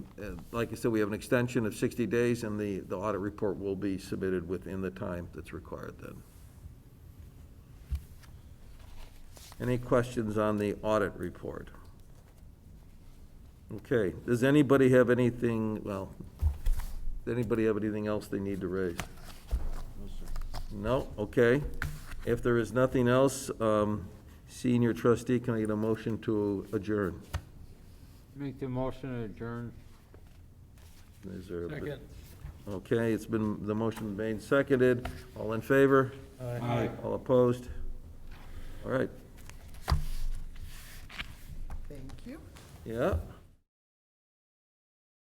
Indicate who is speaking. Speaker 1: uh, like I said, we have an extension of 60 days, and the, the audit report will be submitted within the time that's required then. Any questions on the audit report? Okay, does anybody have anything, well, does anybody have anything else they need to raise? No, okay. If there is nothing else, um, senior trustee, can I get a motion to adjourn?
Speaker 2: Make the motion to adjourn.
Speaker 1: Is there? a- Okay, it's been, the motion made, seconded. All in favor?
Speaker 2: Aye.
Speaker 1: All opposed? All right,
Speaker 3: Thank you.
Speaker 1: yeah.